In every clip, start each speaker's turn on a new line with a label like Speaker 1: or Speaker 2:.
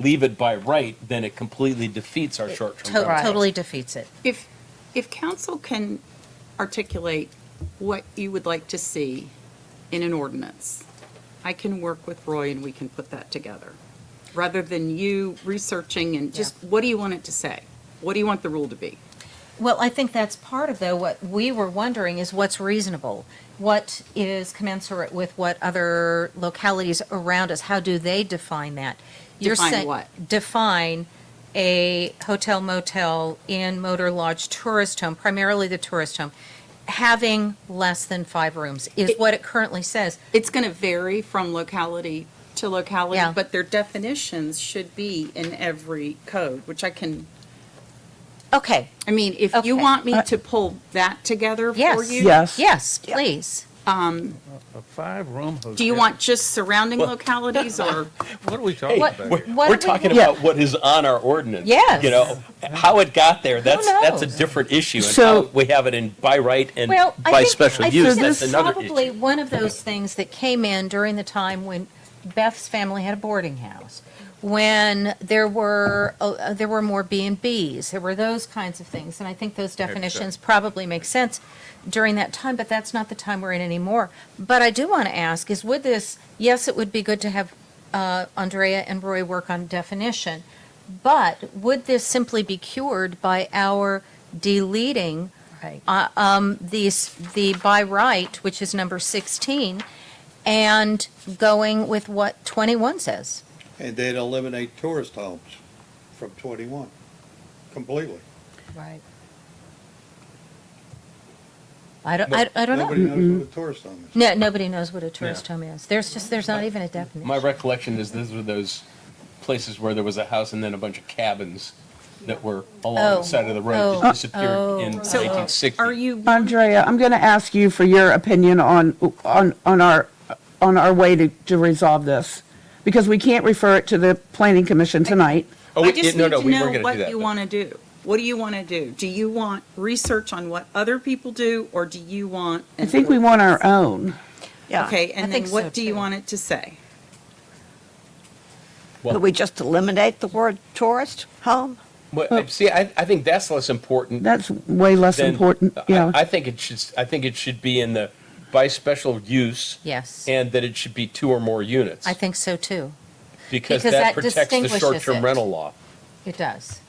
Speaker 1: leave it by right, then it completely defeats our short-term
Speaker 2: To-
Speaker 1: rental.
Speaker 3: Right.
Speaker 2: Totally defeats it.
Speaker 4: If, if council can articulate what you would like to see in an ordinance, I can work with Roy and we can put that together, rather than you researching and just, what do you want it to say? What do you want the rule to be?
Speaker 2: Well, I think that's part of though, what we were wondering is what's reasonable? What is commensurate with what other localities around us, how do they define that? You're
Speaker 4: Define
Speaker 2: saying-
Speaker 4: what?
Speaker 2: Define a hotel motel, inn, motor lodge, tourist home, primarily the tourist home, having less than five rooms is
Speaker 4: It-
Speaker 2: what it currently says.
Speaker 4: It's going to vary from locality to locality,
Speaker 2: Yeah.
Speaker 4: but their definitions should be in every code, which I can,
Speaker 2: Okay,
Speaker 4: I mean, if
Speaker 2: Okay.
Speaker 4: you want me to pull that together for you.
Speaker 2: yes.
Speaker 5: Yes.
Speaker 2: Yes, please.
Speaker 6: A five-room hotel.
Speaker 4: Do you want just surrounding localities or?
Speaker 6: What are we
Speaker 1: Hey,
Speaker 6: talking about?
Speaker 1: we're,
Speaker 6: here?
Speaker 2: what
Speaker 1: we're
Speaker 2: do we
Speaker 1: talking
Speaker 2: want?
Speaker 1: about what is on our ordinance.
Speaker 2: Yes.
Speaker 1: You know, how it got there, that's, that's a
Speaker 2: knows?
Speaker 1: different issue. And
Speaker 5: So-
Speaker 1: how we have it in by right and
Speaker 2: Well, I
Speaker 1: by
Speaker 2: think-
Speaker 1: special
Speaker 2: I
Speaker 1: use,
Speaker 2: think
Speaker 1: that's
Speaker 2: it's
Speaker 1: another
Speaker 2: Probably
Speaker 1: issue.
Speaker 2: one of those things that came in during the time when Beth's family had a boarding house, when there were, uh, uh, there were more B and Bs, there were those kinds of things. And I think those definitions probably make sense during that time, but that's not the time we're in anymore. But I do want to ask is would this, yes, it would be good to have uh, Andrea and Roy work on definition, but would this simply be cured by our deleting
Speaker 3: Right.
Speaker 2: uh, um, these, the by right, which is number 16, and going with what 21 says.
Speaker 7: And they'd eliminate tourist homes from 21 completely.
Speaker 3: Right.
Speaker 2: I don't, I I don't
Speaker 7: Nobody
Speaker 2: know.
Speaker 7: knows what a tourist home is.
Speaker 2: No, nobody knows what a tourist home is. There's just, there's not even a definition.
Speaker 1: My recollection is these were those places where there was a house and then a bunch of cabins that were along
Speaker 2: Oh.
Speaker 1: the side of the road
Speaker 2: Oh.
Speaker 1: that disappeared
Speaker 2: Oh.
Speaker 1: in
Speaker 2: So,
Speaker 1: nineteen sixty.
Speaker 4: Are you
Speaker 5: Andrea, I'm going to ask you for your opinion on, on, on our, on our way to, to resolve this, because we can't refer it to the planning commission tonight.
Speaker 1: Oh,
Speaker 4: I
Speaker 1: wait,
Speaker 4: just
Speaker 1: no,
Speaker 4: need
Speaker 1: no,
Speaker 4: to
Speaker 1: we were
Speaker 4: know
Speaker 1: gonna do
Speaker 4: what
Speaker 1: that,
Speaker 4: you
Speaker 1: but-
Speaker 4: want to do. What do you want to do? Do you want research on what other people do, or do you want?
Speaker 5: I think we want our own.
Speaker 4: Okay,
Speaker 2: I
Speaker 4: and
Speaker 2: think
Speaker 4: then
Speaker 2: so,
Speaker 4: what do you
Speaker 2: too.
Speaker 4: want it to say?
Speaker 8: Could we just eliminate the word tourist home?
Speaker 1: But, see, I, I think that's less important
Speaker 5: That's way less
Speaker 1: than-
Speaker 5: important,
Speaker 1: I-
Speaker 5: yeah.
Speaker 1: I think it should, I think it should be in the by special use
Speaker 2: Yes,
Speaker 1: and that it should be two or more units.
Speaker 2: I think so too.
Speaker 1: Because
Speaker 2: because
Speaker 1: that
Speaker 2: that
Speaker 1: protects the
Speaker 2: distinguishes it.
Speaker 1: short-term rental law.
Speaker 2: It does.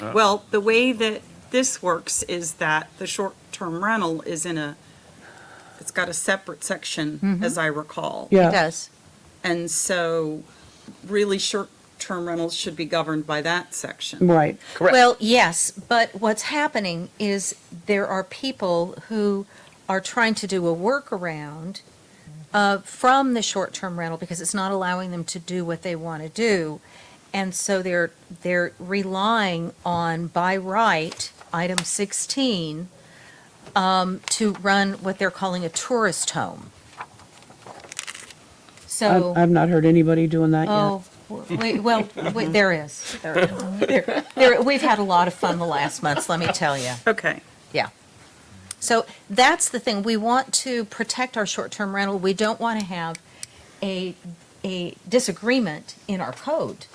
Speaker 1: Uh.
Speaker 4: Well, the way that this works is that the short-term rental is in a, it's got a separate
Speaker 5: Mm-hmm.
Speaker 4: section, as I recall.
Speaker 2: It
Speaker 5: Yeah.
Speaker 2: does.
Speaker 4: And so really short-term rentals should be governed by that section.
Speaker 5: Right.
Speaker 1: Correct.
Speaker 2: Well, yes, but what's happening is there are people who are trying to do a workaround uh, from the short-term rental because it's not allowing them to do what they want to do. And so they're, they're relying on by right, item 16, um, to run what they're calling a tourist home.
Speaker 5: I've,
Speaker 4: Um,
Speaker 2: So.
Speaker 5: I've not heard anybody doing that yet.
Speaker 2: Oh, wait, well, wait, there is. There is. There- there- We've had a lot of fun the last months, let me tell you.
Speaker 4: Oh, Okay.
Speaker 2: Yeah. So that's the thing. We want to protect our short-term rental. We don't want to have a, a disagreement in our code.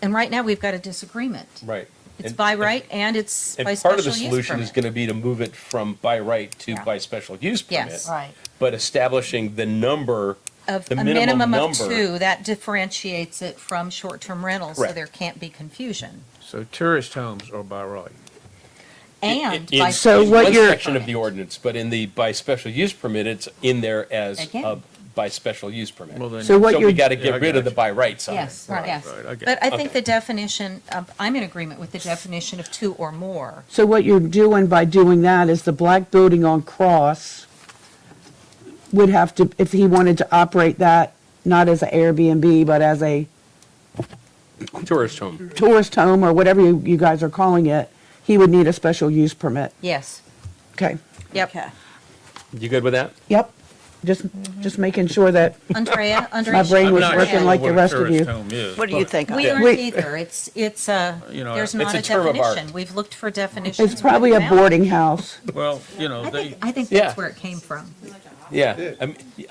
Speaker 2: And right now, we've got a disagreement.
Speaker 1: Right.
Speaker 2: It's
Speaker 1: And-
Speaker 2: by
Speaker 1: and-
Speaker 2: right and it's by
Speaker 1: And
Speaker 2: special
Speaker 1: part of the
Speaker 2: use
Speaker 1: solution is
Speaker 2: permit.
Speaker 1: going to be to move it from by right to
Speaker 2: Yeah.
Speaker 1: by special use permit.
Speaker 2: Yes.
Speaker 3: Right.
Speaker 1: But establishing the number,
Speaker 2: of
Speaker 1: the
Speaker 2: a
Speaker 1: minimum
Speaker 2: minimum of
Speaker 1: number.
Speaker 2: two, that differentiates it from short-term rental, so
Speaker 1: Correct.
Speaker 2: there can't be confusion.
Speaker 6: So tourist homes are by right.
Speaker 2: And
Speaker 1: in-
Speaker 2: by.
Speaker 1: in
Speaker 5: So
Speaker 1: in
Speaker 5: what
Speaker 1: one
Speaker 5: you're-
Speaker 1: section of the ordinance, but in the by special use permit, it's in there as
Speaker 2: Again.
Speaker 1: a by special use permit.
Speaker 6: Well, then-
Speaker 5: So what
Speaker 1: So we
Speaker 5: you're,
Speaker 1: got to
Speaker 6: Yeah, I
Speaker 1: get rid of the
Speaker 6: gotcha.
Speaker 1: by right side.
Speaker 2: Yes,
Speaker 6: Right,
Speaker 2: yes.
Speaker 6: right, I get
Speaker 2: But I
Speaker 1: it.
Speaker 2: think
Speaker 1: Okay.
Speaker 2: the definition, of- I'm in agreement with the definition of two or more.
Speaker 5: so what you're doing by doing that is the black building on Cross would have to, if he wanted to operate that, not as an Airbnb, but as a
Speaker 1: Tourist home.
Speaker 5: tourist home or whatever you, you guys are calling it, he would need a special use permit.
Speaker 2: Yes,
Speaker 5: Okay.
Speaker 2: yep.
Speaker 1: You good with that?
Speaker 5: Yep. Just, just making sure that
Speaker 2: Andrea, Andrea.
Speaker 5: my brain
Speaker 2: should-
Speaker 5: was
Speaker 2: Yeah.
Speaker 5: working like the rest of you.
Speaker 6: I'm not sure
Speaker 8: What
Speaker 6: what a
Speaker 8: do you think?
Speaker 2: We
Speaker 1: Yeah.
Speaker 2: aren't
Speaker 5: Wait.
Speaker 2: either. It's, it's a,
Speaker 6: You know,
Speaker 2: there's
Speaker 6: it's
Speaker 2: not
Speaker 1: a
Speaker 2: a
Speaker 1: term of art.
Speaker 2: definition. We've looked for definitions.
Speaker 5: It's probably a
Speaker 2: board.
Speaker 5: boarding house.
Speaker 6: tourist home is. Well, you know,
Speaker 2: I
Speaker 6: they.
Speaker 2: think, I think
Speaker 1: Yeah.
Speaker 2: that's where it came from.
Speaker 1: Yeah. I mean,